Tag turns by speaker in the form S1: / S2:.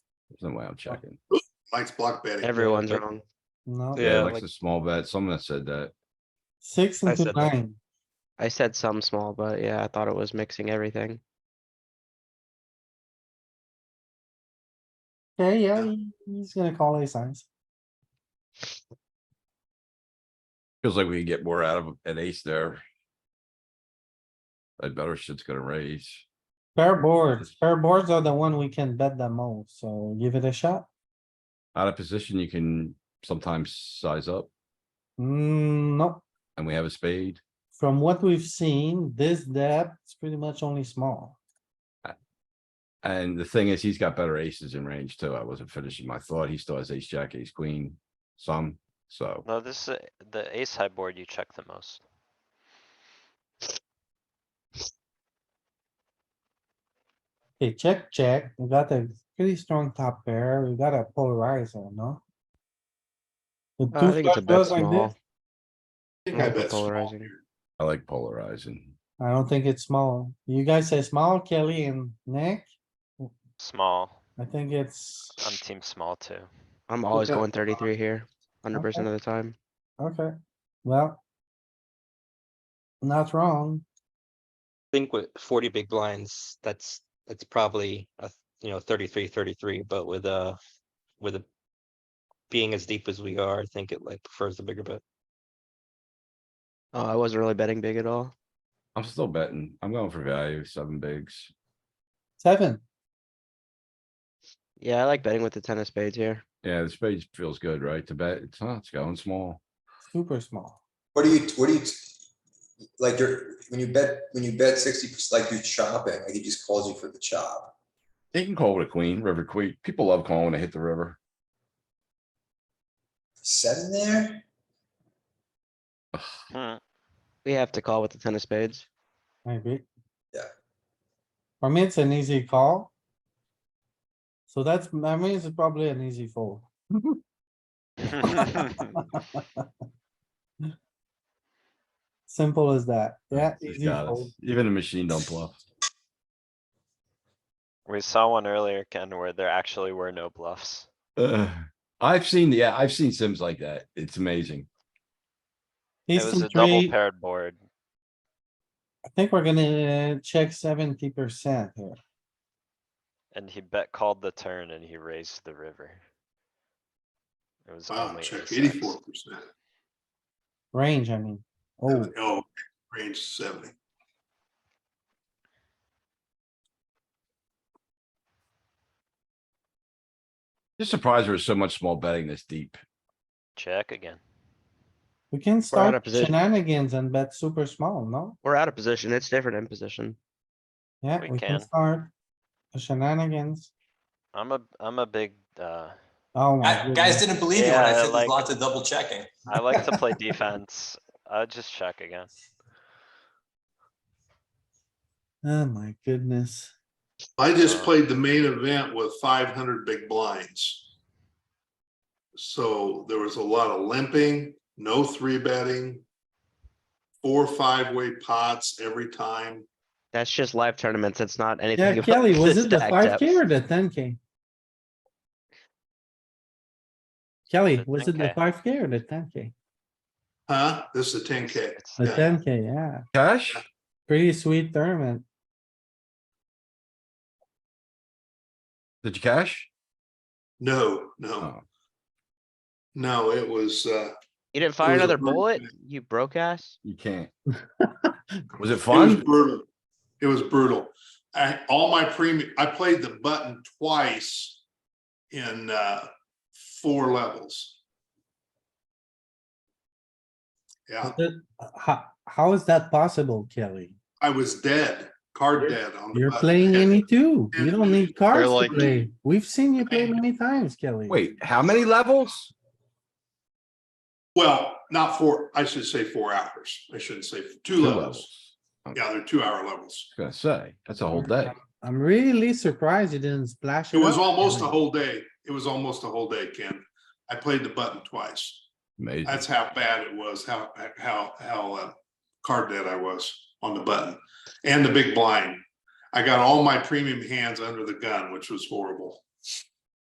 S1: There's no way I'm checking.
S2: Mike's block betting.
S3: Everyone's wrong.
S4: No,
S3: Yeah,
S1: Yeah, like
S3: like-
S1: a small bet. Someone said that.
S4: six
S3: I
S4: into
S3: said that.
S4: nine.
S3: I said some small, but yeah, I thought it was mixing everything.
S4: Okay, yeah,
S2: Yeah.
S4: he- he's gonna call a size.
S1: Feels like we can get more out of an ace there. I better shit's gonna raise.
S4: Pair boards, pair boards are the one we can bet the most, so give it a shot.
S1: Out of position, you can sometimes size up
S4: Mm, no,
S1: and we have a spade.
S4: from what we've seen, this depth is pretty much only small.
S1: And the thing is, he's got better aces in range too. I wasn't finishing my thought. He still has ace, jack, ace, queen, some, so.
S5: No, this is the ace high board you check the most.
S4: Okay, check, check. We got a pretty strong top pair. We got a polarizer, no? With
S3: Uh, I
S4: two
S3: think it's
S4: flush
S3: a bit
S4: draws like
S3: small.
S4: this,
S2: I think I
S3: Yeah,
S2: bet small
S3: polarizing.
S2: here.
S1: I like polarizing.
S4: I don't think it's small. You guys say small, Kelly and Nick?
S5: Small,
S4: I think it's,
S5: I'm team small too.
S3: I'm always
S4: Okay.
S3: going thirty-three here, hundred percent of the time.
S4: okay, well. Not wrong.
S6: think with forty big blinds, that's, that's probably, a th- you know, 33, 33. but with a, with a. Being as deep as we are, I think it like prefers the bigger bet.
S3: Oh, I wasn't really betting big at all.
S1: I'm still betting. I'm going for value, seven bigs.
S4: Seven.
S3: Yeah, I like betting with the ten of spades here.
S1: Yeah, the spade feels good, right? To bet, it's, huh, it's going small.
S4: Super small.
S7: What do you, what do you, like, you're, when you bet, when you bet sixty percent, like you're chopping, like he just calls you for the chop.
S1: They can call with a queen, river queen. People love calling when they hit the river.
S7: Seven there?
S5: Hmm,
S3: We have to call with the ten of spades.
S4: I agree.
S7: Yeah.
S4: For me, it's an easy call. So that's, I mean, it's probably an easy fold. Simple as that. Yeah.
S1: He's
S4: easy
S1: got
S4: fold.
S1: us. Even the machine don't bluff.
S5: We saw one earlier, Ken, where there actually were no bluffs.
S1: Ugh. I've seen, yeah, I've seen sims like that. It's amazing.
S5: It
S4: Ace
S5: was
S4: king
S5: a double
S4: three,
S5: paired board.
S4: I think we're gonna check seventy percent here.
S5: And he bet called the turn and he raised the river. It was
S2: Wow,
S5: only
S2: check
S5: ace X.
S2: eighty-four percent.
S4: Range, I mean. Oh,
S2: Oh, range seventy.
S1: Just surprised there was so much small betting this deep.
S5: Check again.
S4: we can
S3: of
S4: start
S3: position.
S4: shenanigans and bet super small, no?
S3: We're out of position. It's different in position.
S4: Yeah,
S5: We
S4: we can
S5: can.
S4: start the shenanigans.
S5: I'm a, I'm a big, uh,
S4: Oh my
S7: I- Guys
S4: goodness.
S7: didn't believe you when I
S5: Yeah,
S7: said
S5: like-
S7: there's lots of double checking.
S5: I like to play defense. I'll just check again.
S4: Oh my goodness.
S2: I
S1: Uh,
S2: just played the main event with five hundred big blinds. So there was a lot of limping, no three betting. Four, five-way pots every time.
S3: That's just live tournaments. It's not anything.
S4: Yeah,
S3: about
S4: Kelly, was it the
S3: stack
S4: five
S3: depth.
S4: K or the ten K? Kelly,
S5: The
S4: was it the
S5: 10K.
S4: five K or the ten K?
S2: Huh? This is a ten K.
S5: It's
S4: The
S2: Yeah.
S4: ten K, yeah.
S1: Cash?
S4: Pretty sweet tournament.
S1: Did you cash?
S2: No, no,
S1: Oh,
S2: no, it was, uh,
S3: You didn't fire
S2: was a
S3: another
S2: bird
S3: bullet,
S2: check.
S3: you broke ass?
S1: you can't. Was it
S2: It was
S1: fun?
S2: brutal. It was brutal. I, all my premium, I played the button twice in uh, four levels. Yeah,
S4: Is it- How, how is that possible, Kelly?
S2: I was dead, card dead on. the
S4: You're
S2: button.
S4: playing any two. You don't need cards to
S8: like-
S4: play. We've seen you play many times, Kelly.
S1: Wait, how many levels?
S2: Well, not four, I should say four hours. I shouldn't say two levels. Yeah, they're two hour levels.
S1: I was Gonna say, that's a whole day.
S4: I'm really surprised you didn't splash.
S2: It was
S4: up,
S2: almost a
S4: Kelly.
S2: whole day. It was almost a whole day, Ken. I played the button twice.
S1: Amazing.
S2: That's how bad it was, how, how, how uh, card dead I was on the button and the big blind. I got all my premium hands under the gun, which was horrible.